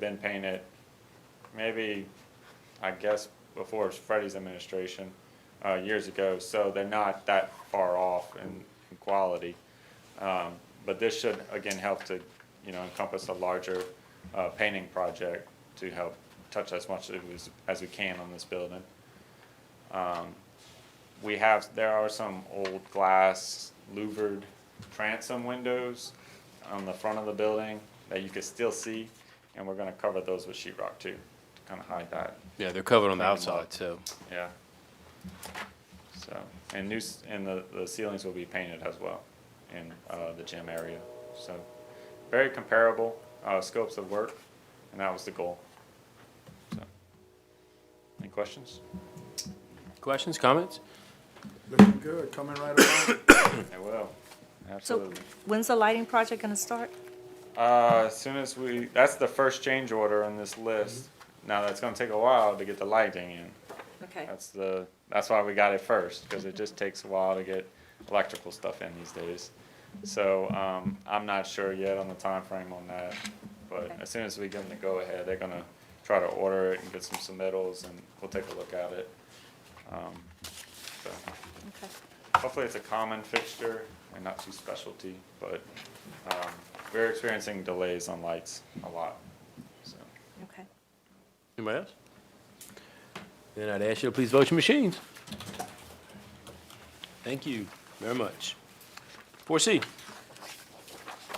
been paying it maybe, I guess, before it was Freddie's administration, uh, years ago, so they're not that far off in, in quality. Um, but this should, again, help to, you know, encompass a larger, uh, painting project to help touch as much as, we- as we can on this building. Um, we have, there are some old glass louvered transom windows on the front of the building that you can still see, and we're gonna cover those with sheetrock too, to kinda hide that, Yeah, they're covered on the Bring 'em outside, so. yeah. So, and new, s- and the, the ceilings will be painted as well in, uh, the gym area, so, very comparable, uh, scopes of work, and that was the goal. So, Any questions? Questions, comments? Looking good, coming right along. I will, So absolutely. when's the lighting project gonna start? Uh, as soon as we, that's the first change order on this list. Now, that's gonna take a while to get the lighting in. Mm-hmm. Okay, That's the, that's why we got it first, because it just takes a while to get electrical stuff in these days. So, um, I'm not sure yet on the time frame on that, but Okay. as soon as we give them the go-ahead, they're gonna try to order it and get some submittals, and we'll take a look at it. Um, so, okay. hopefully it's a common fixture and not too specialty, but, um, we're experiencing delays on lights a lot, so. Okay. Anybody else? Then I'd ask you to please vote your machines. Thank you very much. Four C,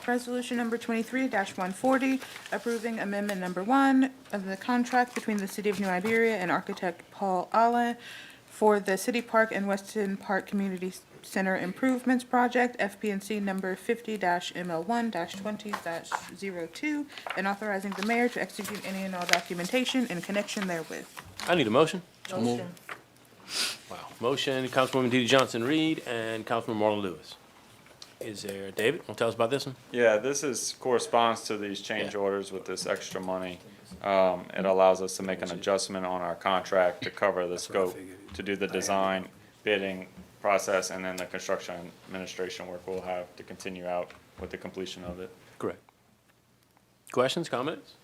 Resolution number twenty-three one forty, approving amendment number one of the contract between the City of New Iberia and architect Paul Allen for the City Park and Weston Park Community Center Improvements Project, FPNC number fifty ML one twenty 2 and authorizing the mayor to execute any and all documentation in connection therewith. I need a motion. Motion. Wow. Motion, Councilwoman DeeDee Johnson-Reed and Councilman Marlon Lewis. Is there, David, want to tell us about this one? Yeah, this is, corresponds to these change Yeah. orders with this extra money. Um, it allows us to make an adjustment on our contract to cover the scope, to do the design, bidding process, and then the construction administration work we'll have to continue out with the completion of it. Correct. Questions, comments?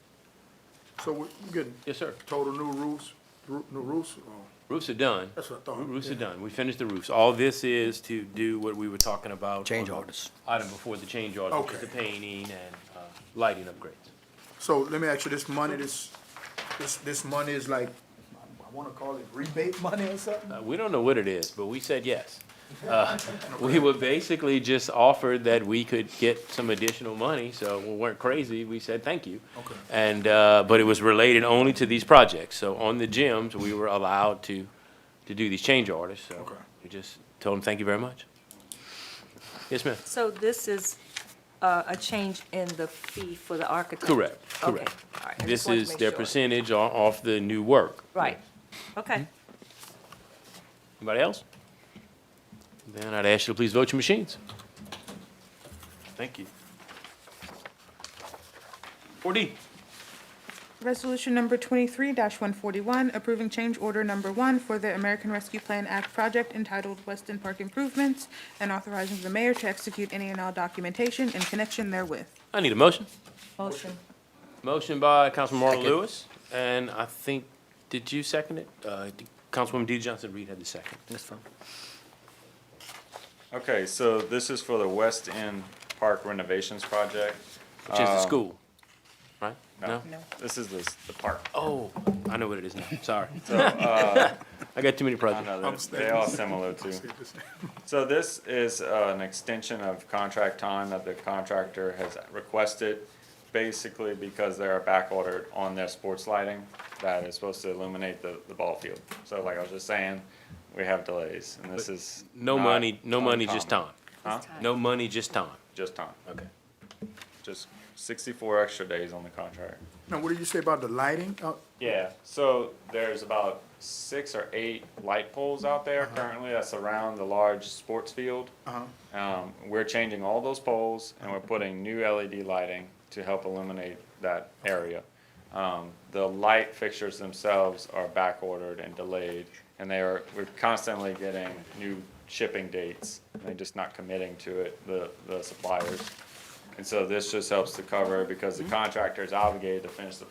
So we're getting Yes, sir. total new roofs, roo- new roofs? Oh, Roofs are done. That's what I thought. Roofs are done. We finished the roofs. All this is to do what we were talking about. Change on the orders. Item before the change order, which is the Okay. painting and, uh, lighting upgrades. So let me ask you, this money, this, this, this money is like, I wanna call it rebate money or something? Uh, We don't know what it is, but we said yes. Uh, We were basically just offered that we could get some additional money, so we weren't crazy, we said thank you. Okay. And, uh, but it was related only to these projects, so on the gyms, we were allowed to, to do these change orders, so. Okay. We just told them, thank you very much. Yes, ma'am, So this is uh, a change in the fee for the architect? correct, Okay, correct. all right. I just This wanted to is make their sure. percentage o- off the new work. Right, okay. Anybody else? Then I'd ask you to please vote your machines. Thank you. Four D, Resolution number twenty-three one forty-one, approving change order number one for the American Rescue Plan Act project entitled Weston Park Improvements and authorizing the mayor to execute any and all documentation in connection therewith. I need a motion. Motion. Motion by Councilman Marlon Second. Lewis, and I think, did you second it? Uh, d- Councilwoman D. Johnson Reed had the second. That's fine. Okay, so this is for the West End Park renovations project. Which is the Um, school, right? Uh, No? This is the, s- the park. Oh, I know what it is now, sorry. So, uh, I got too many I projects. know, they're, they all similar too. So this is uh, an extension of contract time that the contractor has requested, basically because they're backordered on their sports lighting that is supposed to illuminate the, the ball field. So like I was just saying, we have delays, and this is. No not money, no money, just uncommon. time. Huh? No money, just time. Just time, Okay. just sixty-four extra days on the contract. Now, what did you say about the lighting? Uh, Yeah, so there's about six or eight light poles out there currently that surround the large sports field. Um, we're changing all those poles and we're putting new LED lighting to help illuminate that area. Um, the light fixtures themselves are back ordered and delayed, and they are, we're constantly getting new shipping dates. and They're just not committing to it, the, the suppliers. And so this just helps to cover, because the contractor is obligated to finish the